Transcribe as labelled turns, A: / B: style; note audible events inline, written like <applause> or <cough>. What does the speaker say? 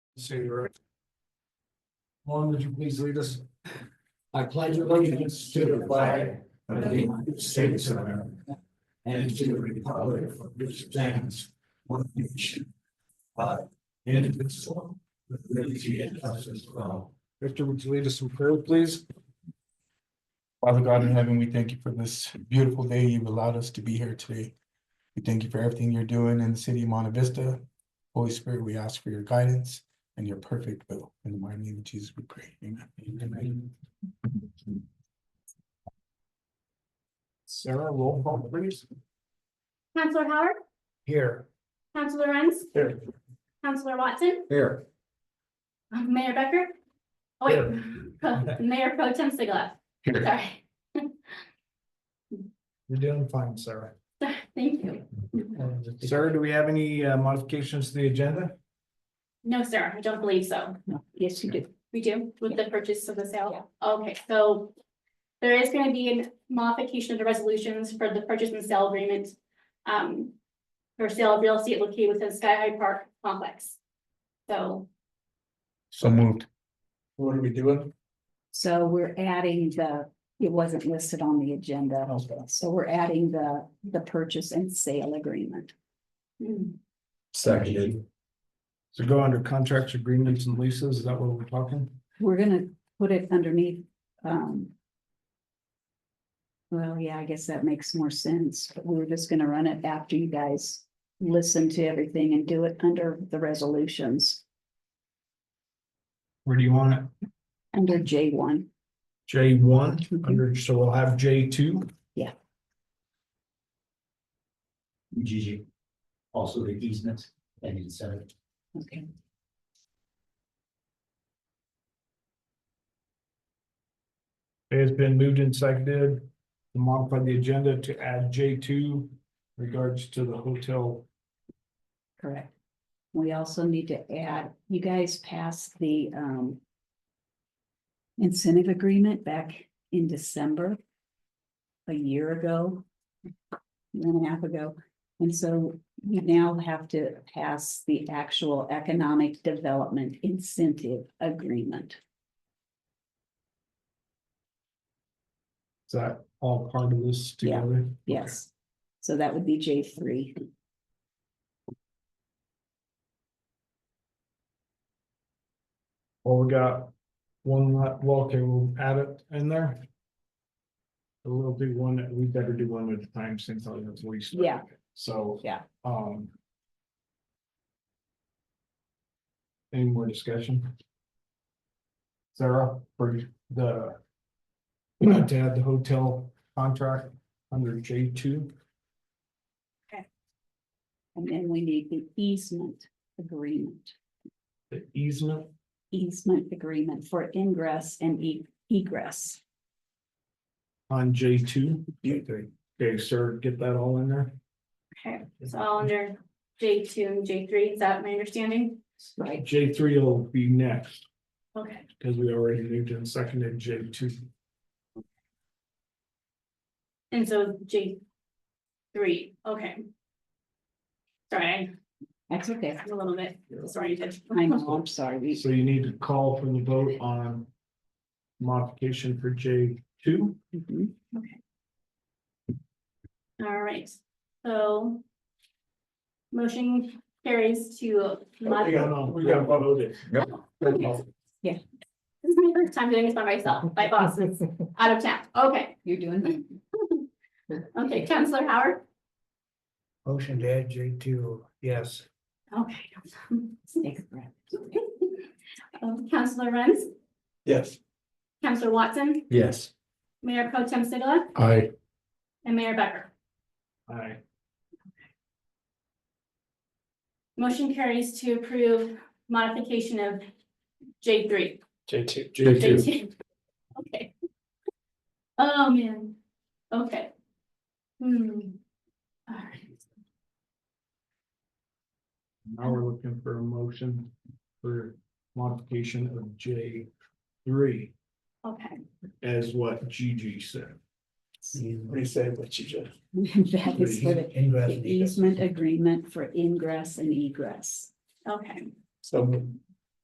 A: City Road. Lauren, would you please lead us? I pledge allegiance to the flag of the United States of America and to the republic for which it stands one nation. But indivisible, with liberty and justice for all. Victor, would you lead us in prayer, please?
B: Father God in heaven, we thank you for this beautiful day you've allowed us to be here today. We thank you for everything you're doing in the city of Monte Vista. Holy Spirit, we ask for your guidance and your perfect will. In the mighty name of Jesus, we pray. Amen. Amen.
A: Sarah, roll call, please.
C: Counselor Howard,
A: Here.
C: Counselor Renz,
A: Here.
C: Counselor Watson, Um,
A: Here.
C: Mayor Becker. Oh, wait, <laughs> Mayor Pro Tem Sigala, sorry,
A: You're doing fine, Sarah.
C: thank you.
A: Sarah, do we have any uh, modifications to the agenda?
C: No, sir, I don't believe so.
D: No, yes, you do.
C: We do with the purchase of the sale? Okay, so there is gonna be a modification of the resolutions for the purchase and sale agreement. Um, for sale of real estate located within Sky High Park complex. So,
B: So moved.
A: What are we doing?
D: So we're adding the, it wasn't listed on the agenda, so we're adding the, the purchase and sale agreement.
C: mm,
A: Seconded. So go under contracts, agreements and leases, is that what we're talking?
D: We're gonna put it underneath, um. Well, yeah, I guess that makes more sense, but we were just gonna run it after you guys listen to everything and do it under the resolutions,
A: Where do you want it?
D: under J one.
A: J one,
D: Mhm.
A: under, so we'll have J two.
D: Yeah.
A: GG.
E: also the easement and incentive.
D: Okay.
A: It has been moved and seconded to modify the agenda to add J two regards to the hotel.
D: Correct. We also need to add, you guys passed the um. Incentive agreement back in December. A year ago. year and a half ago, and so we now have to pass the actual economic development incentive agreement.
A: Is that all part of this
D: Yeah.
A: together?
D: Yes, so that would be J three.
A: Well, we got one, la- well, okay, we'll add it in there. We'll do one, we better do one at a time since I was least.
D: Yeah.
A: So.
D: Yeah.
A: Um. Any more discussion? Sarah, for the. <clears throat> To add the hotel contract under J two,
D: And then we need the easement agreement.
A: the easement,
D: easement agreement for ingress and e- egress.
A: on J two. Okay, sir, get that all in there.
C: okay, it's all under J two and J three, is that my understanding?
D: Right.
A: J three will be next.
C: Okay.
A: Because we already moved in second and J two,
C: And so J three, okay. Sorry,
D: That's okay.
C: I'm a little bit disoriented.
D: I know, I'm sorry. We,
A: so you need to call for the vote on. Modification for J two,
D: mhm.
C: All right, so. Motion carries to. mod-
A: we got, we got voted.
C: Okay.
D: Yeah.
C: This is my first time doing this by myself, my boss is out of town, okay,
D: You're doing it.
C: okay, Counselor Howard,
A: Motion to add J two, yes.
C: okay.
D: Take a breath. <laughs>
C: Um, Counselor Renz,
A: Yes.
C: Counselor Watson,
E: Yes.
C: Mayor Pro Tem Sigala,
B: Aye.
C: and Mayor Becker.
A: Aye.
C: Motion carries to approve modification of J three.
A: J two.
C: J two. Okay. Oh, man. Okay. Hmm. All right.
A: Now we're looking for a motion for modification of J three
C: Okay,
A: as what Gigi said. Reset what you just.
D: That is for the the easement agreement for ingress and egress.
C: okay.
A: So.